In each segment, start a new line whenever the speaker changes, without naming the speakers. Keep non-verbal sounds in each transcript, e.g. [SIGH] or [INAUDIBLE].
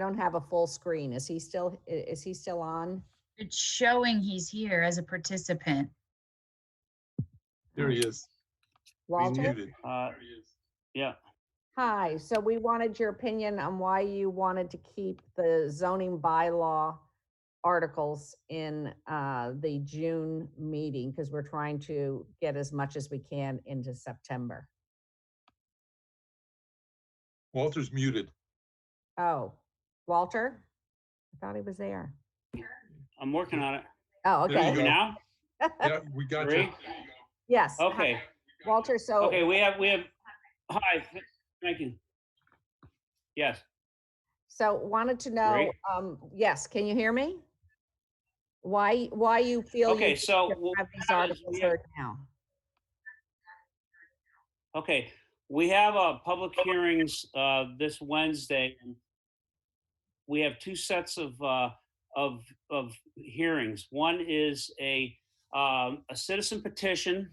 don't have a full screen. Is he still, i- is he still on?
It's showing he's here as a participant.
There he is. He's
Walter?
muted.
Uh,
There he is.
yeah,
Hi, so we wanted your opinion on why you wanted to keep the zoning bylaw articles in uh, the June meeting, because we're trying to get as much as we can into September.
Walter's muted.
Oh, Walter? I thought he was there.
I'm working on it.
Oh,
There you
okay.
go.
Here now?
Yeah, we got you.
Three?
Yes. hi,
Okay,
Walter, so
okay, we have, we have, hi, thank you. Yes,
So wanted to know,
Great.
um, yes, can you hear me? Why, why you feel
Okay,
you should
so
[LAUGHS]
what
have these
happens
articles
when-
heard now?
okay. We have, uh, public hearings, uh, this Wednesday. and We have two sets of, uh, of, of hearings. One is a, um, a citizen petition,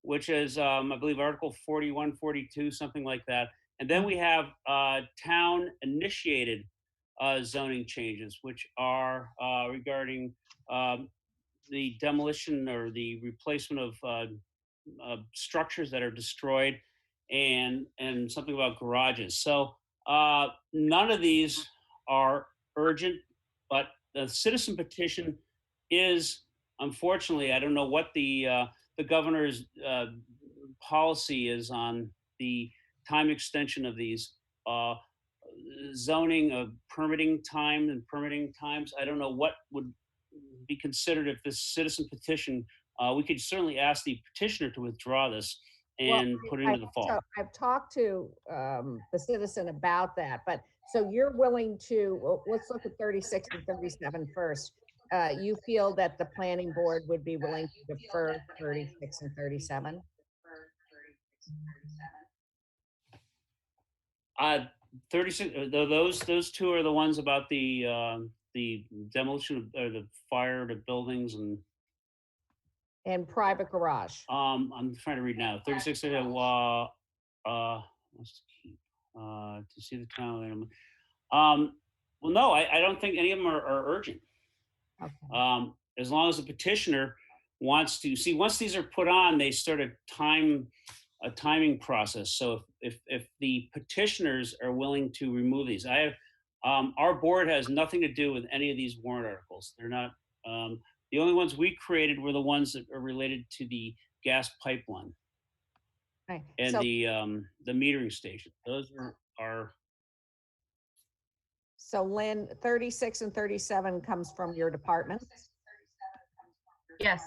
which is, um, I believe Article forty-one, forty-two, something like that. And then we have, uh, town initiated, uh, zoning changes, which are, uh, regarding, um, the demolition or the replacement of, uh, uh, structures that are destroyed and, and something about garages. So, uh, none of these are urgent, but the citizen petition is, unfortunately, I don't know what the, uh, the governor's, uh, policy is on the time extension of these, uh, zoning, uh, permitting time and permitting times. I don't know what would be considered if this citizen petition, uh, we could certainly ask the petitioner to withdraw this
Well,
and put it
I-
into the fall.
so I've talked to, um, the citizen about that, but, so you're willing to, well, let's look at 36 and 37 first. Uh, you feel that the planning board would be willing to defer 36 and 37?
Uh, thirty-six, uh, tho- those, those two are the ones about the, um, the demolition of, or the fire to buildings and,
And private garage?
um, I'm trying to read now, thirty-six, uh, wa- uh, let's keep, uh, to see the town. Um, well, no, I, I don't think any of them are, are urgent.
Okay.
Um, as long as the petitioner wants to, see, once these are put on, they start a time, a timing process. So if, if, if the petitioners are willing to remove these, I have, um, our board has nothing to do with any of these warrant articles. They're not, um, the only ones we created were the ones that are related to the gas pipeline
Right,
and
so-
the, um, the metering station. Those are, are,
So Lynn, 36 and 37 comes from your department?
Yes,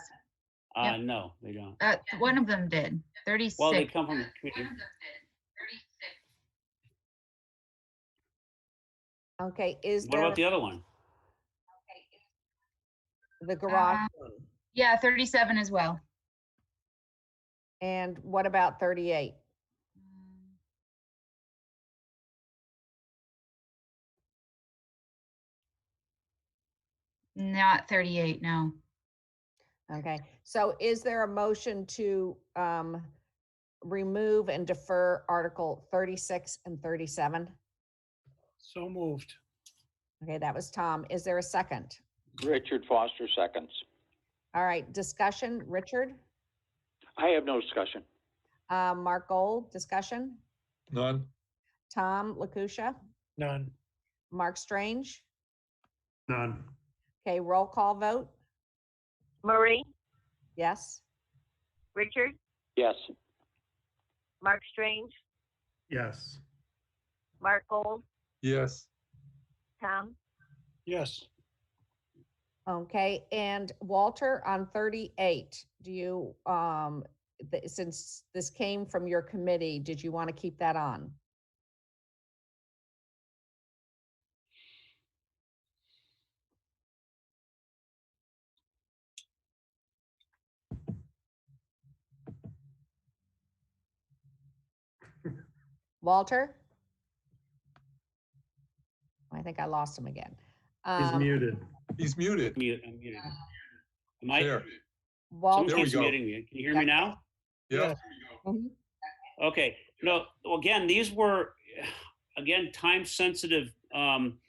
uh,
Yep.
no, they don't.
uh, one of them did,
Well, they
thirty-six.
come from the community.
Okay, is
What
there
about the other one?
the garage?
Uh,
one?
Yeah, thirty-seven as well.
And what about 38?
Not thirty-eight, no.
Okay, so is there a motion to um remove and defer Article 36 and 37?
So moved.
Okay, that was Tom. Is there a second?
Richard Foster seconds.
All right, discussion, Richard?
I have no discussion.
Uh, Mark Gold, discussion?
None.
Tom Lakusha?
None.
Mark Strange?
None.
Okay, roll call vote?
Marie,
Yes?
Richard,
Yes.
Mark Strange,
Yes.
Mark Gold,
Yes.
Tom,
Yes.
Okay, and Walter, on thirty-eight, do you, um, th- since this came from your committee, did you want to keep that on? Walter? I think I lost him again.
He's
Um,
muted.
He's muted.
Mute, I'm muted.
Uh,
Am I?
There.
Walter?
Someone
There we
keeps
go.
muting me. Can you hear me now?
Yeah.
Mhm.
Okay, no, well, again, these were, again, time-sensitive uh, Um,